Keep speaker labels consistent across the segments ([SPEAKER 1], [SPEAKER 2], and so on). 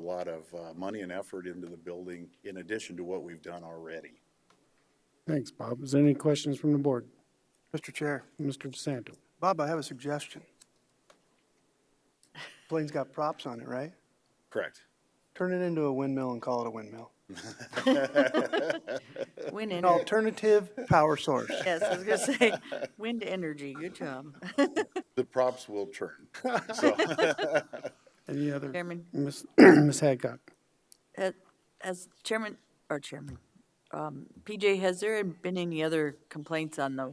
[SPEAKER 1] lot of uh, money and effort into the building in addition to what we've done already.
[SPEAKER 2] Thanks, Bob. Is there any questions from the board?
[SPEAKER 3] Mr. Chair,
[SPEAKER 2] Mr. DeSanto?
[SPEAKER 3] Bob, I have a suggestion. Plane's got props on it, right?
[SPEAKER 1] Correct.
[SPEAKER 3] Turn it into a windmill and call it a windmill.
[SPEAKER 4] Wind
[SPEAKER 3] An
[SPEAKER 4] energy.
[SPEAKER 3] alternative power source.
[SPEAKER 4] Yes, I was gonna say, wind energy, good job.
[SPEAKER 1] The props will turn. So,
[SPEAKER 2] Any other?
[SPEAKER 4] Chairman,
[SPEAKER 2] Ms. Ms. Hadcock?
[SPEAKER 4] uh, as chairman, or chairman, um, PJ, has there been any other complaints on the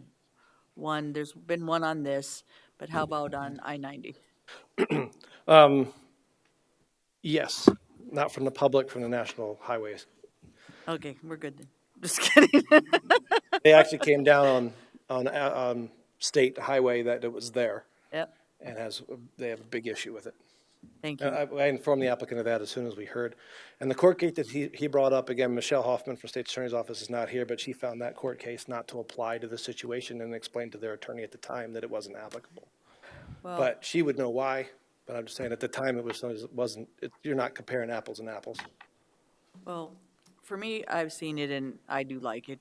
[SPEAKER 4] one? There's been one on this, but how about on I-90?
[SPEAKER 5] Yes, not from the public, from the national highways.
[SPEAKER 4] Okay, we're good then. Just kidding.
[SPEAKER 5] They actually came down on, on, uh, um, state highway that it was there
[SPEAKER 4] Yep,
[SPEAKER 5] and has, they have a big issue with it.
[SPEAKER 4] thank
[SPEAKER 5] And
[SPEAKER 4] you.
[SPEAKER 5] I, I informed the applicant of that as soon as we heard. And the court gate that he, he brought up, again, Michelle Hoffman from State Attorney's Office is not here, but she found that court case not to apply to the situation and explained to their attorney at the time that it wasn't applicable.
[SPEAKER 4] Well,
[SPEAKER 5] But she would know why, but I'm just saying at the time it was, it wasn't, it- you're not comparing apples and apples.
[SPEAKER 4] well, for me, I've seen it and I do like it.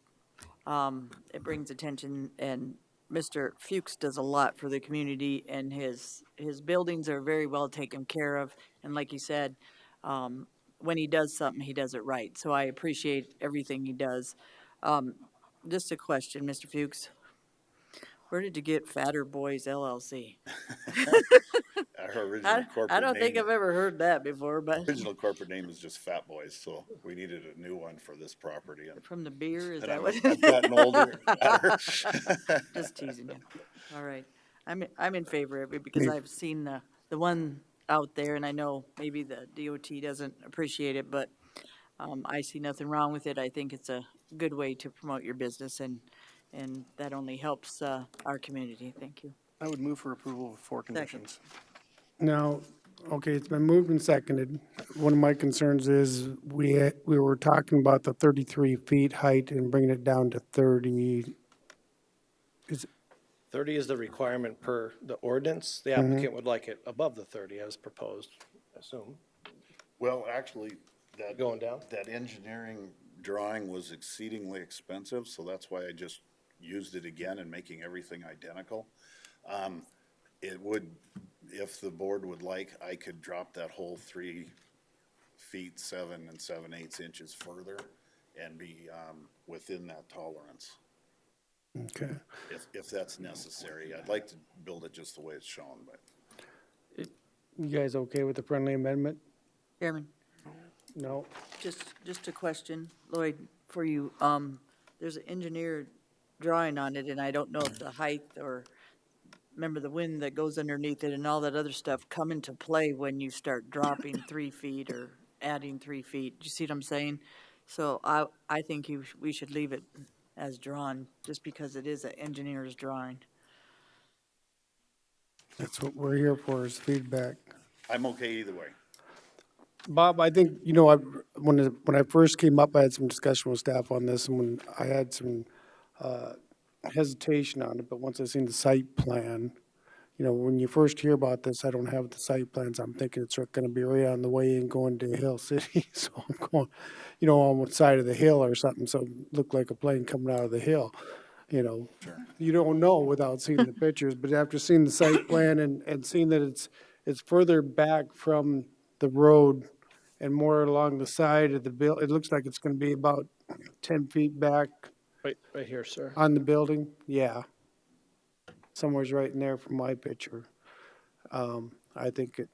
[SPEAKER 4] Um, it brings attention and Mr. Fuchs does a lot for the community and his, his buildings are very well taken care of. And like you said, um, when he does something, he does it right. So I appreciate everything he does. Um, just a question, Mr. Fuchs. Where did you get Fatter Boys LLC?
[SPEAKER 1] Our original
[SPEAKER 4] I,
[SPEAKER 1] corporate
[SPEAKER 4] I don't think
[SPEAKER 1] name-
[SPEAKER 4] I've ever heard that before, but
[SPEAKER 1] Original corporate name is just Fat Boys, so we needed a new one for this property. and-
[SPEAKER 4] from the beer, is
[SPEAKER 1] And
[SPEAKER 4] that
[SPEAKER 1] I've
[SPEAKER 4] what?
[SPEAKER 1] I've gotten older.
[SPEAKER 4] Just teasing you. All right. I'm, I'm in favor of it because I've seen the, the one out there and I know maybe the DOT doesn't appreciate it, but um, I see nothing wrong with it. I think it's a good way to promote your business and, and that only helps, uh, our community. Thank you.
[SPEAKER 3] I would move for approval with four conditions.
[SPEAKER 2] Now, okay, it's been moved and seconded. One of my concerns is we, had- we were talking about the thirty-three feet height and bringing it down to thirty. Is,
[SPEAKER 5] 30 is the requirement per the ordinance. The applicant would like it above the 30 as proposed, I assume.
[SPEAKER 1] Well, actually, that.
[SPEAKER 5] Going down?
[SPEAKER 1] That engineering drawing was exceedingly expensive, so that's why I just used it again and making everything identical. Um, It would, if the board would like, I could drop that whole three feet, seven and seven eighths inches further and be, um, within that tolerance,
[SPEAKER 2] okay.
[SPEAKER 1] if, if that's necessary. I'd like to build it just the way it's shown, but.
[SPEAKER 2] You guys okay with the friendly amendment?
[SPEAKER 4] Chairman?
[SPEAKER 2] No?
[SPEAKER 4] Just, just a question, Lloyd, for you. Um, there's an engineer drawing on it, and I don't know if the height or, remember the wind that goes underneath it and all that other stuff come into play when you start dropping three feet or adding three feet. Do you see what I'm saying? So I, I think you, sh- we should leave it as drawn, just because it is an engineer's drawing.
[SPEAKER 2] That's what we're here for, is feedback.
[SPEAKER 1] I'm okay either way.
[SPEAKER 2] Bob, I think, you know, I, when, it- when I first came up, I had some discussion with staff on this, and when I had some uh, hesitation on it, but once I seen the site plan, you know, when you first hear about this, I don't have the site plans, I'm thinking it's gonna be right on the way in going to Hill City, so I'm going, you know, on one side of the hill or something, so it looked like a plane coming out of the hill, you know? You don't know without seeing the pictures, but after seeing the site plan and, and seeing that it's, it's further back from the road and more along the side of the bill, it looks like it's gonna be about ten feet back
[SPEAKER 5] Right, right here, sir.
[SPEAKER 2] on the building, yeah. Somewhere's right in there from my picture. Um, I think it,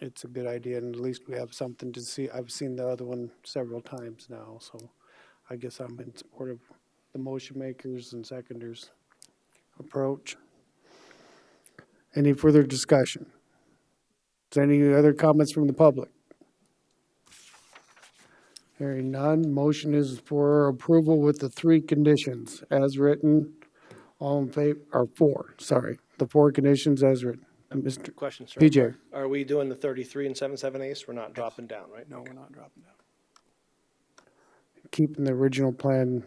[SPEAKER 2] it's a good idea, and at least we have something to see. I've seen the other one several times now, so I guess I'm in support of the motion makers and seconders approach. Any further discussion? Is there any other comments from the public? Hearing none, motion is for approval with the three conditions as written. All in favor, or four, sorry, the four conditions as written. Mr.
[SPEAKER 5] Question, sir.
[SPEAKER 2] PJ,
[SPEAKER 5] Are we doing the 33 and 77 eighths? We're not dropping down, right?
[SPEAKER 3] No, we're not dropping down.
[SPEAKER 2] keeping the original plan,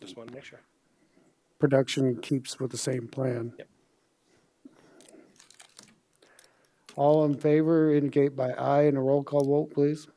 [SPEAKER 5] Just want to make sure.
[SPEAKER 2] production keeps with the same plan.
[SPEAKER 5] Yep.
[SPEAKER 2] All in favor indicate by aye and a roll call vote, please.